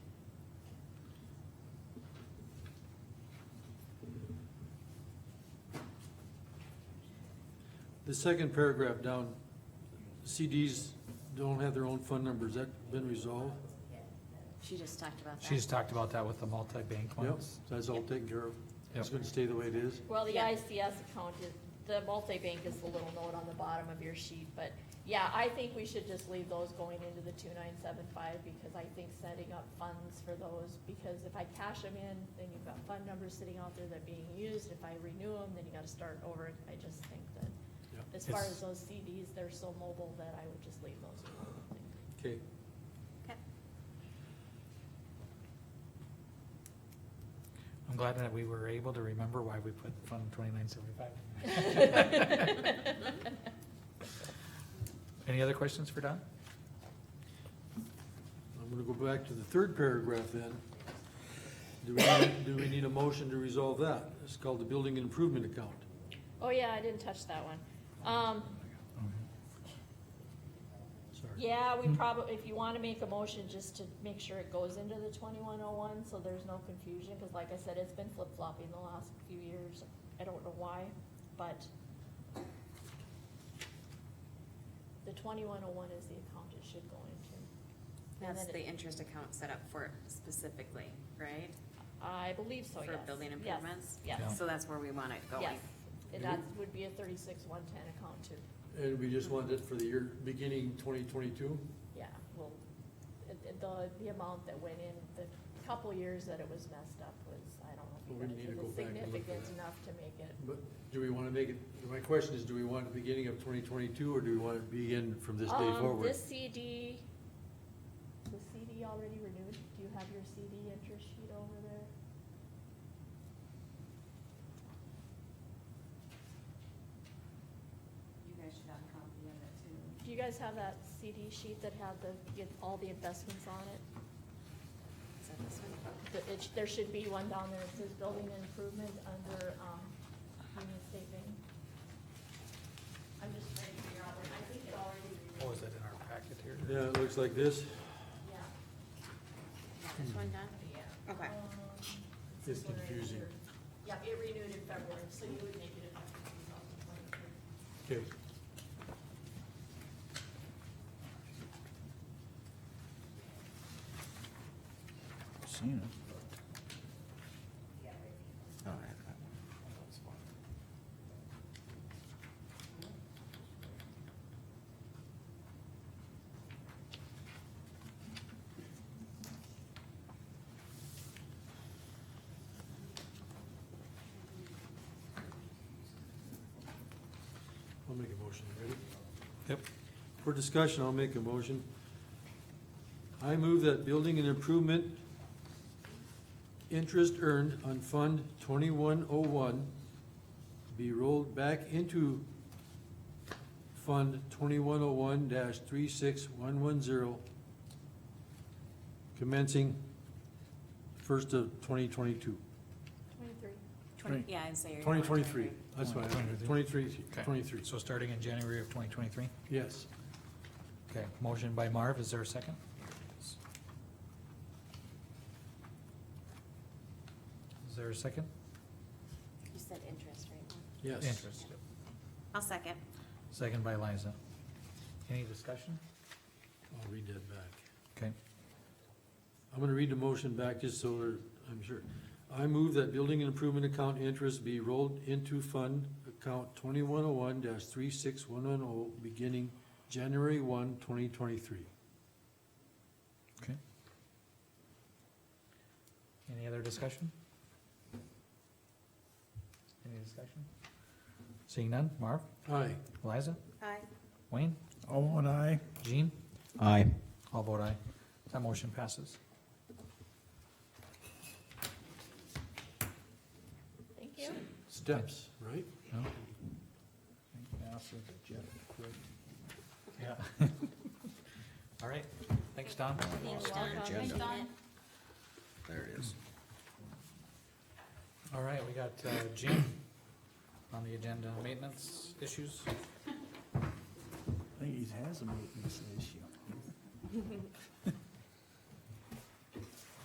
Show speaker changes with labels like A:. A: The second paragraph down, CDs don't have their own fund numbers, that been resolved?
B: She just talked about that.
C: She's talked about that with the multi-bank
A: Yep,
C: ones.
A: so that's all taken care of. It's
C: Yep.
A: gonna stay the way it is.
D: Well, the
B: Yeah.
D: ICS account is, the multi-bank is the little note on the bottom of your sheet, but yeah, I think we should just leave those going into the two nine seven five, because I think setting up funds for those, because if I cash them in, then you've got fund numbers sitting out there that are being used, if I renew them, then you gotta start over, I just think that,
A: Yep.
D: as far
C: It's-
D: as those CDs, they're so mobile that I would just leave those. alone.
A: Okay,
B: Okay.
C: I'm glad that we were able to remember why we put Fund twenty-nine seventy-five. Any other questions for Don?
A: I'm gonna go back to the third paragraph then. Do we, need- do we need a motion to resolve that? It's called the building improvement account.
D: Oh, yeah, I didn't touch that one. Um,
A: Sorry.
D: Yeah, we probably, if you wanna make a motion, just to make sure it goes into the twenty-one oh one, so there's no confusion, cause like I said, it's been flip-flopping the last few years. I don't know why, but the twenty-one oh one is the account it should go into. And
B: That's
D: then
B: the
D: it-
B: interest account set up for it specifically, right?
D: I believe so, yes.
B: For building
D: Yes,
B: improvements?
D: Yes,
B: So that's where we want it going.
D: yes. And that would be a thirty-six one ten account too.
A: And we just wanted it for the year beginning twenty twenty-two?
D: Yeah, well, it- it- the, the amount that went in, the couple years that it was messed up was, I don't
A: Well,
D: know
A: we
D: if
A: need to
D: you guys-
A: go
D: it was
A: back and look at
D: significant
A: that.
D: enough to make it.
A: But do we wanna make it, my question is, do we want it beginning of twenty twenty-two, or do we want it begin from this day
D: Um,
A: forward?
D: This CD, the CD already renewed, do you have your CD interest sheet over there?
B: You guys should have a copy of it too.
D: Do you guys have that CD sheet that had the, get all the investments on it?
B: Is that this one?
D: The- it sh- There should be one down there, it says building improvement under, um, Union State Bank. I'm just trying to figure out, where- I think it already renewed.
C: Oh, is that in our packet here?
A: Yeah, it looks like this.
D: Yeah.
B: Yeah, this one, Don? Okay.
D: Um,
A: It's
D: this one right
A: confusing.
D: here. Yeah, it renewed in February, so you would make it effective two thousand twenty-two.
A: Okay.
E: Seen it.
A: I'll make a motion, ready?
C: Yep.
A: For discussion, I'll make a motion. I move that building and improvement interest earned on Fund twenty-one oh one be rolled back into Fund twenty-one oh one three six one one zero commencing first of twenty twenty-two.
D: Twenty-three.
B: Twenty, yeah, I'd say. you're
A: Twenty
B: going
A: twenty-three, that's what I,
C: 23.
A: twenty-three,
C: Okay.
A: twenty-three,
C: So starting in January of twenty twenty-three?
A: yes.
C: Okay, motion by Marv, is there a second? Is there a second?
B: You said interest, right?
A: Yes.
C: Interest.
B: I'll second.
C: Second by Liza. Any discussion?
A: I'll read that back.
C: Okay,
A: I'm gonna read the motion back just so we're- I'm sure. I move that building and improvement account interest be rolled into fund account twenty-one oh one three six one one oh, beginning January 1, 2023.
C: okay. Any other discussion? Any discussion? Seeing none, Marv,
A: Aye.
C: Liza,
B: Aye.
C: Wayne,
E: Oh, and I.
C: Jean,
E: Aye.
C: all vote aye. That motion passes.
D: Thank you.
A: Steps, right?
C: No? Yeah. All right, thanks, Don.
E: Agenda. There it is.
C: All right, we got uh, Jim on the agenda, maintenance issues.
E: I think he has a maintenance issue.